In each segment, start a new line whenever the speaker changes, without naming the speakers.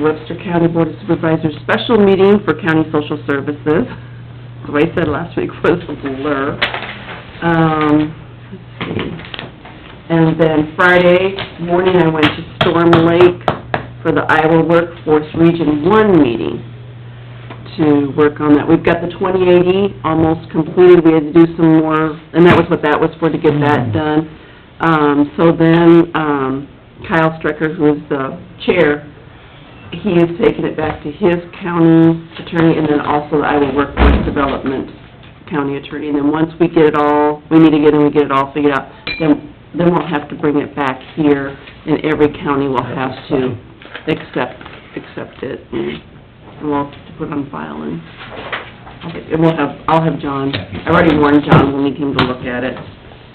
Webster County Board of Supervisors Special Meeting for County Social Services. The way I said last week was a blur. Um, let's see. And then Friday morning, I went to Storm Lake for the Iowa Workforce Region One meeting to work on that. We've got the twenty eighty almost completed, we had to do some more, and that was what that was for, to get that done. Um, so then, um, Kyle Strecker, who is the chair, he is taking it back to his county attorney, and then also the Iowa Workforce Development County Attorney. And then once we get it all, we need to get, and we get it all figured out, then, then we'll have to bring it back here, and every county will have to accept, accept it, and we'll have to put it on file, and, and we'll have, I'll have John, I already warned John when we came to look at it.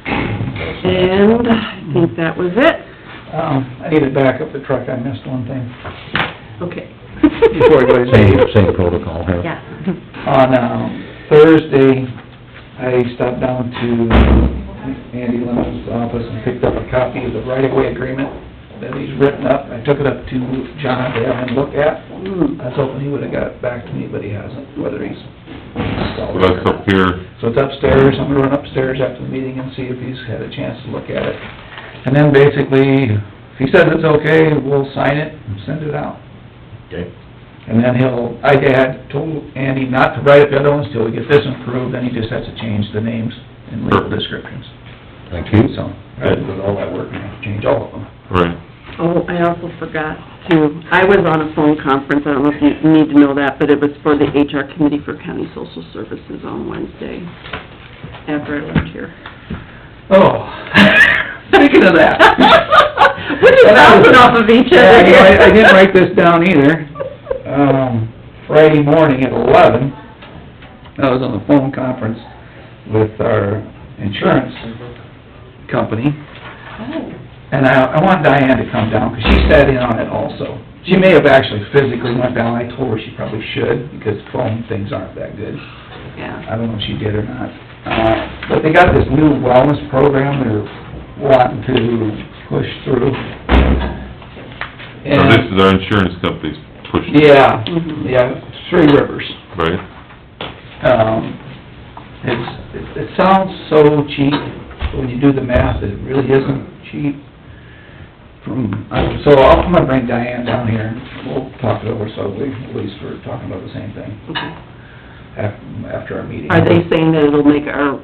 And I think that was it.
Um, I need to back up the truck, I missed one thing.
Okay.
Before I go ahead and-
Same, same protocol here.
Yeah.
On, um, Thursday, I stopped down to Andy Lemon's office and picked up a copy of the right-of-way agreement that he's written up. I took it up to John to have him look at.
Mm.
I was hoping he would've got it back to me, but he hasn't, whether he's
Well, that's up here,
So it's upstairs, I'm gonna run upstairs after the meeting and see if he's had a chance to look at it. And then basically, if he says it's okay, we'll sign it and send it out.
Okay.
And then he'll, I had told Andy not to write up the other ones till we get this approved, then he just has to change the names and legal descriptions.
Thank you.
So, I did all that work and have to change all of them.
right.
Oh, I also forgot to, I was on a phone conference, I don't know if you need to know that, but it was for the HR Committee for County Social Services on Wednesday, after I left here.
Oh, speaking of that.
We're just bouncing off of each other here.
Yeah, I- I didn't write this down either. um, Friday morning at eleven, I was on the phone conference with our insurance company. And I, I want Diane to come down, because she sat in on it also. She may have actually physically went down, I told her she probably should, because phone things aren't that good.
Yeah.
I don't know if she did or not. Uh, But they got this new wellness program they're wanting to push through.
So this
And,
is our insurance company's pushing, it,
yeah,
Mhm.
yeah, Three Rivers.
right?
Um, it's, it- it sounds so cheap, but when you do the math, it really isn't cheap. From, I- so I'll- I'm gonna bring Diane down here, and we'll talk it over, so we, at least we're talking about the same thing
Okay.
af- after our meeting.
Are they saying that it'll make our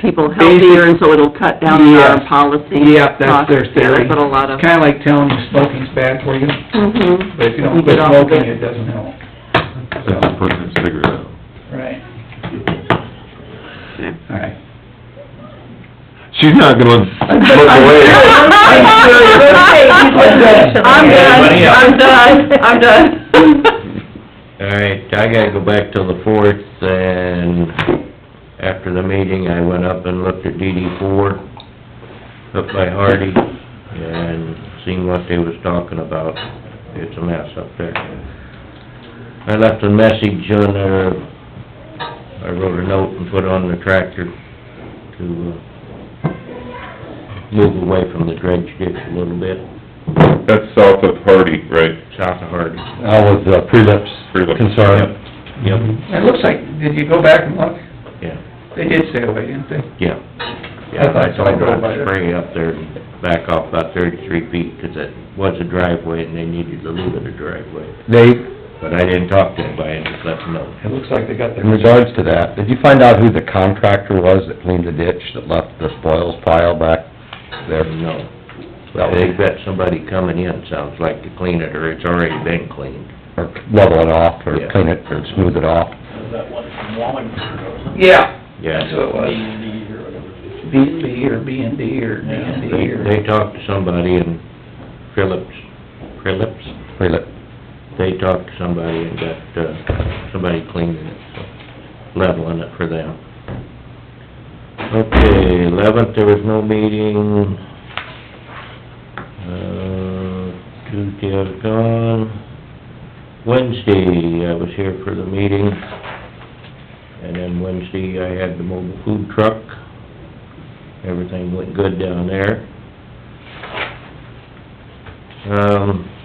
people healthier, and so it'll cut down on
Yes.
our policy?
Yep, that's their
costs? Yeah,
theory.
that's what a lot of...
Kinda like telling you smoking's bad for you,
Mhm.
but if you
We
don't
get
quit
off of
smoking, it doesn't help.
That's a pertinent cigarette out.
Right.
Okay.
All right.
She's not gonna look
I'm done.
away.
I'm done, I'm done, I'm done.
All right, I gotta go back till the fourth, and after the meeting, I went up and looked at DD four, up by Hardy, and seen what they was talking about. It's a mess up there. I left a message on their, I wrote a note and put on the tractor to uh, move away from the dredge ditch a little bit,
That's south of Hardy, right?
south of Hardy.
That was uh, prelips
Prelips.
concern.
Yep,
It looks like, did you go back and look?
yeah.
They did stay away, didn't they?
Yeah.
I
Yeah,
thought
I told her
someone might
I'd
have-
spray up there and back off about thirty-three feet, 'cause it was a driveway and they needed a little bit of driveway.
They,
But I didn't talk to anybody, I just let them know.
It looks like they got their...
in regards to that, did you find out who the contractor was that cleaned the ditch that left the spoils pile back there?
No.
Well,
They've got somebody coming in, sounds like, to clean it, or it's already been cleaned.
Or level it off, or
Yeah.
clean it, or smooth it off?
that one from Wallingford, wasn't it?
Yeah.
Yeah.
That's what it was.
D&D or whatever it is.
B and B or B and D or D and D
They,
or...
they talked to somebody in Phillips, Phillips,
Prelip,
they talked to somebody and got, uh, somebody cleaning it, so leveling it for them. Okay, eleventh, there was no meeting. Uh, Tuesday I was gone. Wednesday, I was here for the meeting. And then Wednesday, I had the mobile food truck. Everything went good down there. Um,